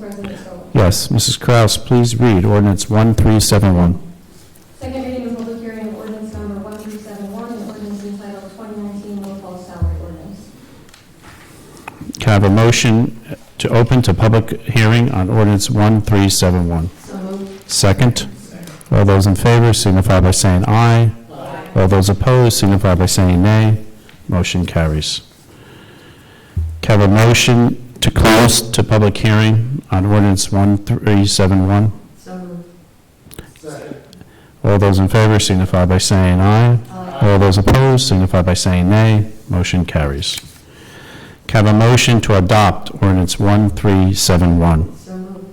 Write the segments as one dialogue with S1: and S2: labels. S1: President Scobah.
S2: Yes, Mrs. Kraus, please read ordinance 1371.
S1: Second reading of public hearing of ordinance number 1371, an ordinance entitled 2019 will fall salary ordinance.
S2: Can I have a motion to open to public hearing on ordinance 1371?
S1: So moved.
S2: Second. All those in favor signify by saying aye. All those opposed signify by saying nay. Motion carries. Can I have a motion to close to public hearing on ordinance 1371?
S1: So moved.
S2: All those in favor signify by saying aye.
S1: Uh,
S2: All those opposed signify by saying nay. Motion carries. Can I have a motion to adopt ordinance 1371?
S1: So moved.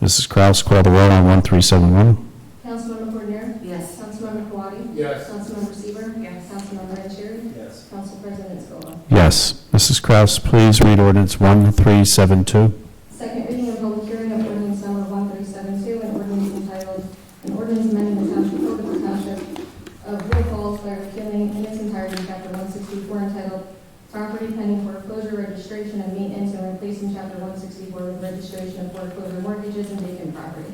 S2: Mrs. Kraus, call the roll on 1371.
S1: Councilmember Cordenear?
S3: Yes.
S1: Councilmember Quattie?
S4: Yes.
S1: Councilmember Seaver?
S3: Yes.
S1: Councilmember Vanchery?
S4: Yes.
S1: Council President Scobah.
S2: Yes. Mrs. Kraus, please read ordinance 1372.
S1: Second reading of public hearing of ordinance number 1372, an ordinance entitled, an ordinance amending the township code of the township of Wood Falls by repealing in its entirety chapter 164 entitled Property Pending Foreclosure Registration and Maintenance and replacing chapter 164 with registration of foreclosure mortgages and vacant property.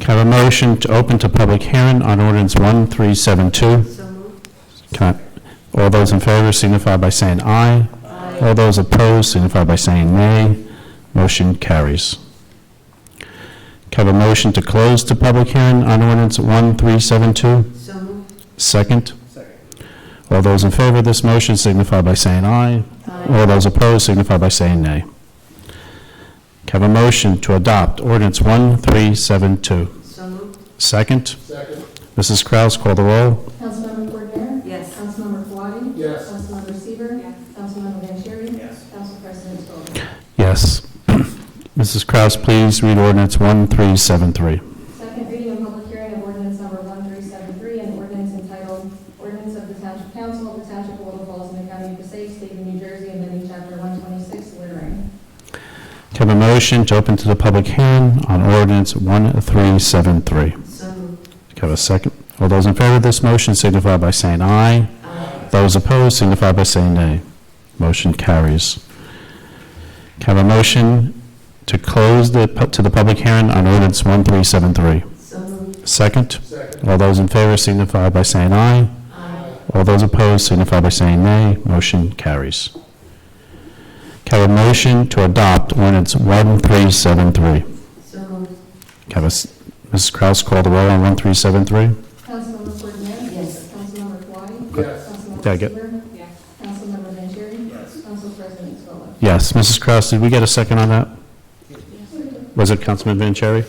S2: Can I have a motion to open to public hearing on ordinance 1372?
S3: So moved.
S2: Can I- All those in favor signify by saying aye. All those opposed signify by saying nay. Motion carries. Can I have a motion to close the public hearing on ordinance 1372?
S3: So moved.
S2: Second.
S4: Second.
S2: All those in favor of this motion signify by saying aye. All those opposed signify by saying nay. Can I have a motion to adopt ordinance 1372?
S3: So moved.
S2: Second.
S4: Second.
S2: Mrs. Kraus, call the roll.
S1: Councilmember Cordenear?
S3: Yes.
S1: Councilmember Quattie?
S4: Yes.
S1: Councilmember Seaver?
S3: Yes.
S1: Councilmember Vanchery?
S4: Yes.
S1: Council President Scobah.
S2: Yes. Mrs. Kraus, please read ordinance 1373.
S1: Second reading of public hearing of ordinance number 1373, an ordinance entitled, Ordinance of the Township Council of the Township of Little Falls in the County of Passaic, State of New Jersey, amending Chapter 126 littering.
S2: Can I have a motion to open to the public hearing on ordinance 1373? Can
S3: So moved.
S2: I have a second? All those in favor of this motion signify by saying aye. Those opposed signify by saying nay. Motion carries. Can I have a motion to close the, pu- to the public hearing on ordinance 1373?
S3: So moved.
S2: Second.
S4: Second.
S2: All those in favor signify by saying aye. All those opposed signify by saying nay. Motion carries. Can I have a motion to adopt ordinance 1373? Can
S3: So moved.
S2: I have a s- Mrs. Kraus call the roll on 1373?
S1: Councilmember Cordenear?
S3: Yes.
S1: Councilmember Quattie?
S4: Yes.
S2: Did I
S1: Councilmember
S2: get-
S1: Seaver?
S3: Yes.
S1: Councilmember Vanchery?
S4: Yes.
S1: Council President Scobah.
S2: Yes, Mrs. Kraus, did we get a second on that? Was it Councilman Vanchery?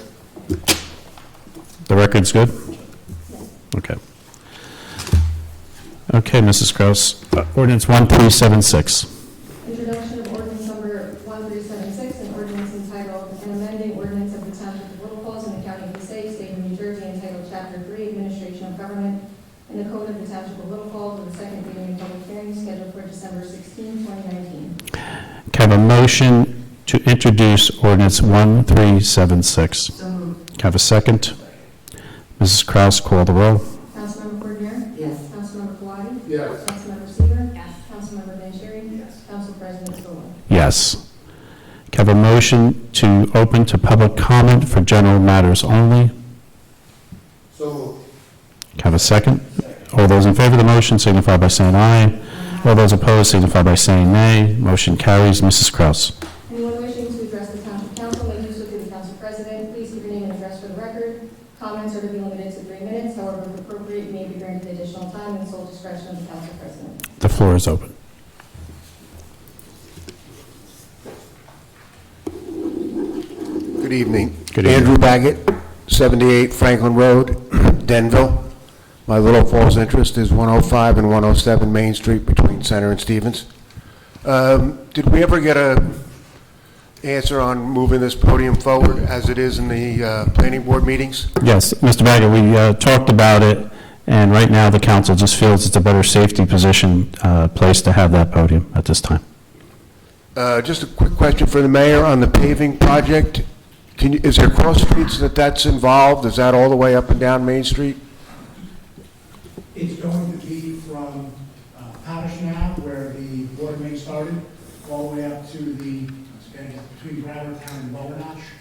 S2: The record's good? Okay. Okay, Mrs. Kraus, uh, ordinance 1376.
S1: Introduction of ordinance number 1376, an ordinance entitled, an amending ordinance of the Township of Little Falls in the County of Passaic, State of New Jersey, entitled Chapter 3, Administration of Government, in the Code of the Township of Little Falls, with a second reading and public hearing scheduled for December 16, 2019.
S2: Can I have a motion to introduce ordinance 1376?
S3: So moved.
S2: Can I have a second? Mrs. Kraus, call the roll.
S1: Councilmember Cordenear?
S3: Yes.
S1: Councilmember Quattie?
S4: Yes.
S1: Councilmember Seaver?
S3: Yes.
S1: Councilmember Vanchery?
S4: Yes.
S1: Council President Scobah.
S2: Yes. Can I have a motion to open to public comment for general matters only?
S4: So moved.
S2: Can I have a second? All those in favor of the motion signify by saying aye. All those opposed signify by saying nay. Motion carries. Mrs. Kraus.
S1: Anyone wishing to address the township council may do so through the council president. Please give your name and address for the record. Comments are to be limited to three minutes, however, if appropriate, you may be granted additional time in sole discretion of the council president.
S2: The floor is open.
S5: Good evening.
S2: Good evening.
S5: Andrew Baggett, 78 Franklin Road, Denville. My Little Falls interest is 105 and 107 Main Street between Center and Stevens. Um, Did we ever get a answer on moving this podium forward as it is in the uh, planning board meetings?
S2: Yes, Mr. Baggett, we uh, talked about it, and right now the council just feels it's a better safety position, uh, place to have that podium at this time.
S5: Uh, Just a quick question for the mayor on the paving project. Can you, is there cross streets that that's involved? Is that all the way up and down Main Street?
S6: It's going to be from uh, Powdish Knob, where the water main started, all the way up to the, it's gonna be uh, between Bradertown and Bow Bonach